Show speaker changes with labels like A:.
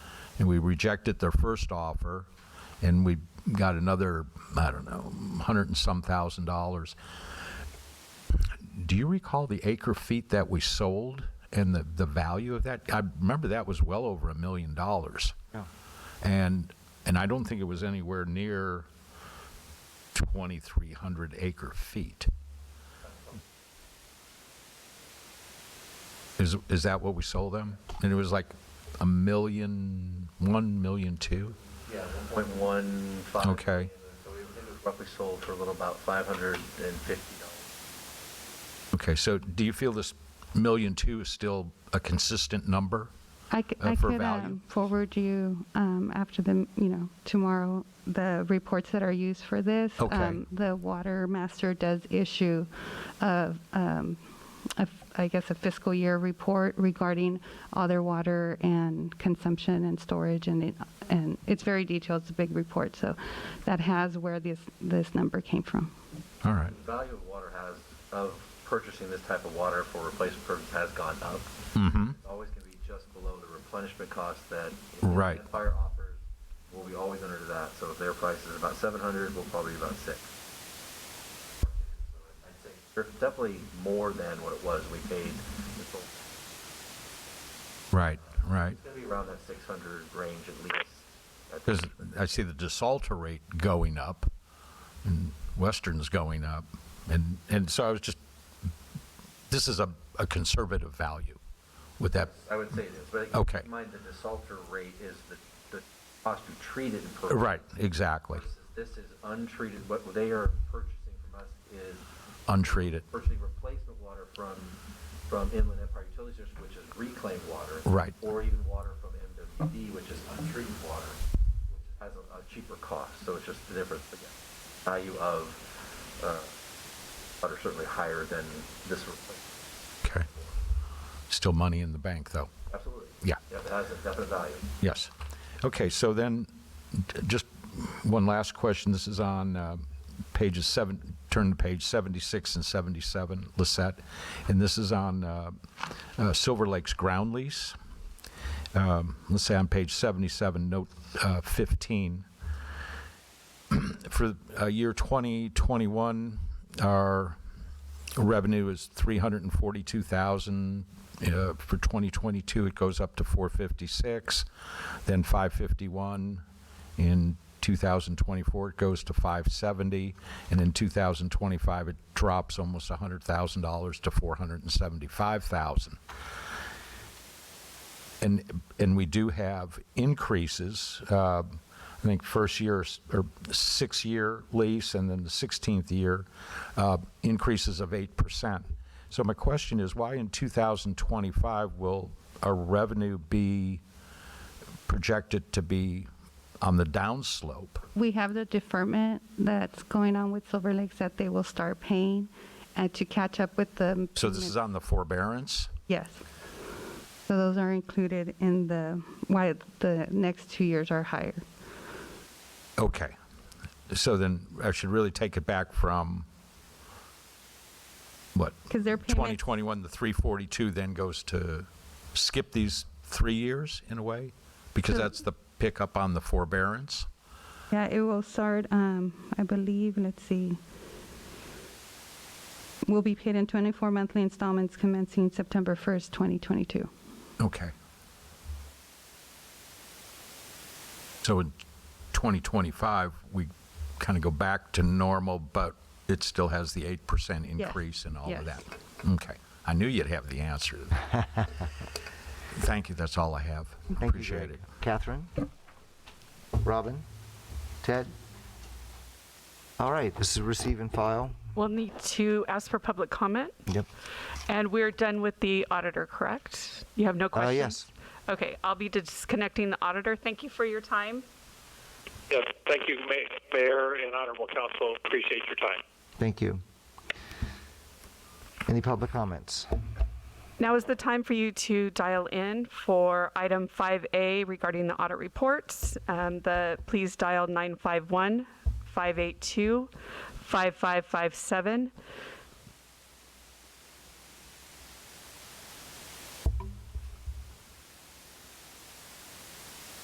A: and we rejected their first offer, and we got another, I don't know, hundred and some thousand dollars. Do you recall the acre feet that we sold and the, the value of that? I remember that was well over a million dollars.
B: Yeah.
A: And, and I don't think it was anywhere near 2,300 acre feet. Is, is that what we sold them? And it was like a million, 1 million 2?
C: Yeah, 1.15.
A: Okay.
C: So it it was roughly sold for a little about 550 dollars.
A: Okay, so do you feel this million 2 is still a consistent number?
D: I, c-
A: uh,
D: I
A: for
D: could
A: value?
D: um, forward you um, after the, m- you know, tomorrow, the reports that are used for this.
A: Okay.
D: Um, The water master does issue, a, um, a f- I guess, a fiscal year report regarding all their water and consumption and storage, and it, and it's very detailed, it's a big report, so that has where this, this number came from.
A: All right.
C: The value of water has, of purchasing this type of water for replacement purposes has gone up.
A: Mm-hmm.
C: It's always going to be just below the replenishment cost that.
A: Right.
C: that Fire offers, we'll be always under that. So if their price is about 700, we'll probably be about six. So I'd say they're Definitely more than what it was we paid. It's
A: Right, right.
C: going to be around that 600 range at least.
A: Because
C: That's-
A: I see the desalter rate going up, and Western's going up, and, and so I was just, this is a, a conservative value. Would that,
C: I would say it is, but
A: Okay.
C: keep in mind that the desalter rate is the, the cost to treat it. per-
A: right, exactly,
C: versus This is untreated, what they are purchasing from us is
A: untreated,
C: purchasing replacement water from, from Inland Empire Utilities District, which is reclaimed water.
A: Right.
C: Or even water from MWD, which is untreated water, which has a a cheaper cost, so it's just the difference, again. Value of, uh, water certainly higher than this replacement,
A: okay. Still money in the bank, though,
C: absolutely.
A: Yeah.
C: Yeah, it has a definite value.
A: yes. Okay, so then, j- just one last question, this is on uh, pages seven, turn to page 76 and 77, Lissette, and this is on uh, uh, Silver Lake's ground lease. um, let's say on page 77, note uh, 15, for uh, year 2021, our revenue is 342,000. Uh, For 2022, it goes up to 456, then 551. In 2024, it goes to 570, and in 2025, it drops almost $100,000 to 475,000. And, and we do have increases, uh, I think first year s- or six-year lease and then the 16th year, uh, increases of 8%. So my question is, why in 2025 will our revenue be projected to be on the downslope?
D: we have the deferment that's going on with Silver Lakes that they will start paying and to catch up with the.
A: So this is on the forbearance?
D: Yes. So those are included in the, why the next two years are higher.
A: Okay. So then I should really take it back from, what?
D: Because their payments,
A: 2021, the 342 then goes to skip these three years in a way? Because
D: So-
A: that's the pickup on the forbearance?
D: yeah, it will start, um, I believe, let's see. Will be paid in 24 monthly installments commencing September 1st, 2022.
A: Okay. So in 2025, we kind of go back to normal, but it still has the 8%
D: Yes,
A: increase and all of
D: yes.
A: that? Okay. I knew you'd have the answer to that. Thank you, that's all I have.
B: Thank you,
A: Appreciate
B: Greg.
A: it.
B: Catherine? Robin? Ted? All right, this is receive and file.
E: We'll need to ask for public comment,
B: Yep.
E: and we're done with the auditor, correct? You have no questions?
B: yes.
E: Okay, I'll be disconnecting the auditor. Thank you for your time.
F: Yes, thank you, Ma- Mayor and Honorable Council. Appreciate your time.
B: Thank you. Any public comments?
E: Now is the time for you to dial in for item 5A regarding the audit reports. Um, The, please dial 951-582-5557